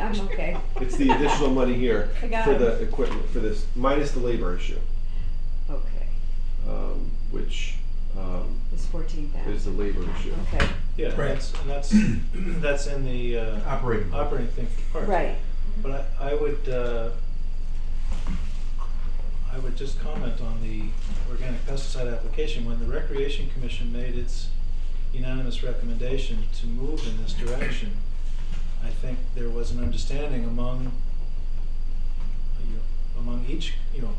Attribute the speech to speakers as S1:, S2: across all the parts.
S1: I'm okay.
S2: It's the additional money here
S1: I got
S2: for
S1: it.
S2: the equipment, for this, minus the labor issue,
S1: Okay,
S2: um, which, um,
S1: it's fourteen
S2: is
S1: thousand.
S2: the labor issue.
S1: Okay,
S3: Yeah,
S4: Right.
S3: that's, and that's, that's in the, uh,
S4: Operating.
S3: operating thing part.
S1: right.
S3: But I, I would, uh, I would just comment on the organic pesticide application. When the Recreation Commission made its unanimous recommendation to move in this direction, I think there was an understanding among, you know, among each, you know,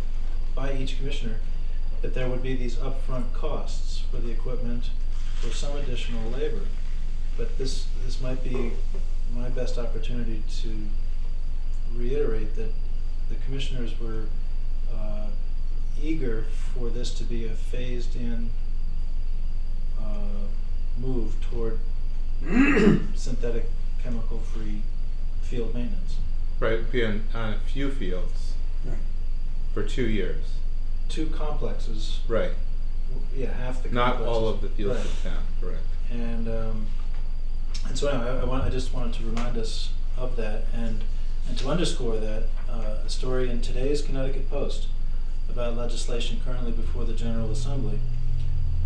S3: by each commissioner, that there would be these upfront costs for the equipment, for some additional labor. But this, this might be my best opportunity to reiterate that the commissioners were uh, eager for this to be a phased-in uh, move toward synthetic chemical-free field maintenance.
S5: Right, be on, on a few fields
S6: Right.
S5: for two years.
S3: Two complexes,
S5: Right,
S3: w- yeah, half the complexes.
S5: not all of the fields
S3: Right.
S5: of town, correct.
S3: And, um, and so anyway, I, I want, I just wanted to remind us of that and, and to underscore that, uh, a story in today's Connecticut Post about legislation currently before the General Assembly.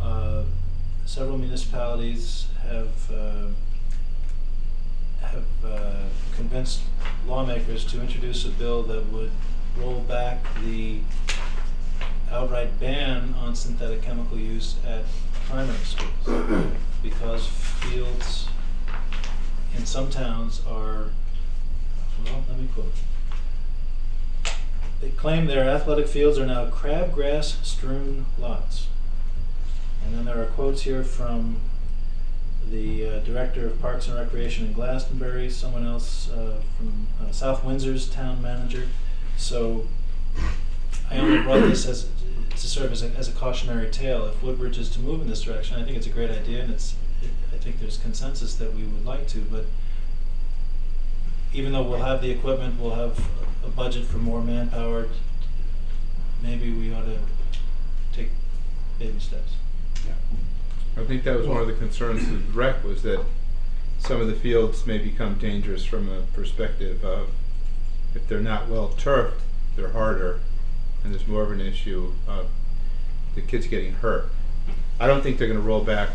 S3: Uh, several municipalities have, uh, have, uh, convinced lawmakers to introduce a bill that would roll back the outright ban on synthetic chemical use at primary schools because fields in some towns are, well, let me quote. They claim their athletic fields are now crabgrass strewn lots. And then there are quotes here from the uh, director of Parks and Recreation in Glastonbury, someone else uh, from uh, South Windsor's town manager. So I only brought this as to serve as a, as a cautionary tale. If Woodbridge is to move in this direction, I think it's a great idea, and it's I think there's consensus that we would like to. But even though we'll have the equipment, we'll have a budget for more manpower. Maybe we ought to take baby steps.
S5: I think that was one of the concerns of the rec was that some of the fields may become dangerous from a perspective of if they're not well turfed, they're harder, and there's more of an issue of the kids getting hurt. I don't think they're going to roll back.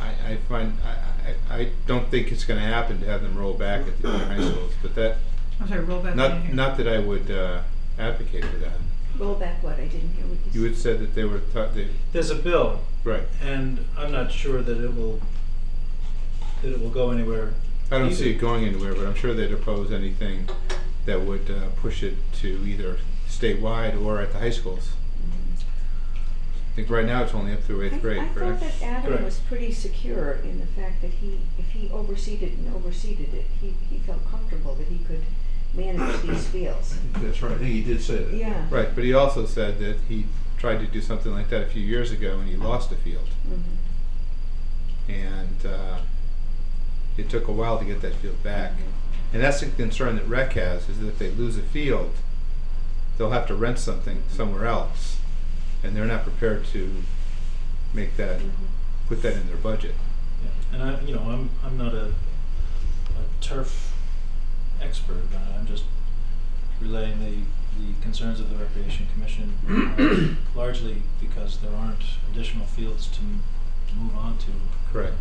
S5: I, I find I, I, I don't think it's going to happen to have them roll back at the junior high schools, but that
S7: I'm sorry, roll back.
S5: Not,
S7: in.
S5: not that I would uh, advocate for that.
S1: Roll back what? I didn't hear what you said.
S5: You had said that they were taught, they,
S3: There's a bill,
S5: right.
S3: and I'm not sure that it will that it will go anywhere.
S5: I don't
S3: Either.
S5: see it going anywhere, but I'm sure they'd oppose anything that would uh, push it to either statewide or at the high schools. I think right now it's only up through
S1: I-
S5: eighth grade,
S1: I thought
S5: correct?
S1: that Adam
S3: Correct.
S1: was pretty secure in the fact that he, if he overseeded and overseeded it, he, he felt comfortable that he could manage these fields.
S4: That's right, I think he did say that.
S1: Yeah.
S5: Right, but he also said that he tried to do something like that a few years ago and he lost a field.
S1: Mhm.
S5: and uh, it took a while to get that field back. And that's the concern that rec has is that if they lose a field, they'll have to rent something somewhere else, and they're not prepared to make that
S1: Mhm.
S5: put that in their budget.
S3: Yeah, and I, you know, I'm, I'm not a, a turf expert, but I'm just relaying the, the concerns of the Recreation Commission, uh, largely because there aren't additional fields to m- move on to.
S5: Correct.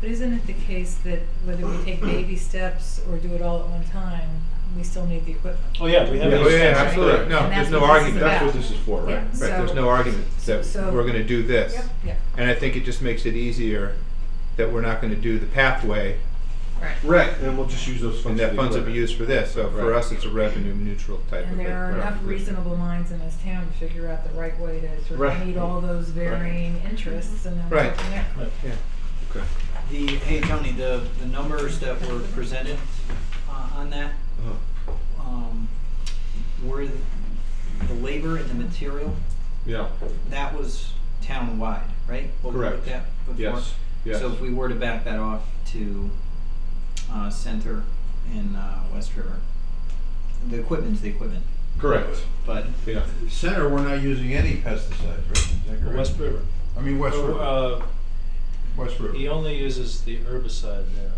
S7: But isn't it the case that whether we take baby steps or do it all at one time, we still need the equipment?
S3: Oh, yeah, we have.
S4: Yeah,
S5: Oh,
S3: those
S5: yeah,
S3: things, right?
S5: absolutely. No,
S7: And
S5: there's
S7: that's
S5: no
S7: what this is
S5: argument.
S4: That's
S7: Yeah.
S4: what this is for, right?
S7: Yeah.
S5: Right, there's
S7: So-
S5: no argument that
S7: so-
S5: we're going to do this.
S1: Yep.
S7: Yeah,
S5: And I think it just makes it easier that we're not going to do the pathway,
S7: right.
S2: Right, and we'll just use those
S5: and
S2: funds.
S5: that
S2: for the
S5: funds will be
S2: equipment.
S5: used for this. So for
S2: Right.
S5: us, it's a revenue neutral type of
S7: And
S5: thing.
S7: there are
S5: Right.
S7: enough reasonable minds in this town to figure out the right way to sort
S2: Right.
S7: of meet all those varying interests and then
S5: Right.
S7: go from there.
S3: Right.
S5: Yeah.
S2: Okay.
S8: The, hey Tony, the, the numbers that were presented uh, on that,
S2: Uh-huh.
S8: um, were the the labor and the material,
S2: Yeah,
S8: that was town-wide, right? What we
S2: Correct.
S8: looked at before?
S2: yes, yes.
S8: So if we were to back that off to, uh, Center and, uh, West River, the equipment's the equipment,
S2: Correct,
S8: but
S2: yeah.
S4: Center, we're not using any pesticides, right? Is that correct?
S3: West River.
S4: I mean, West
S3: Or,
S4: River,
S3: Uh,
S4: West River.
S3: he only uses the herbicide there.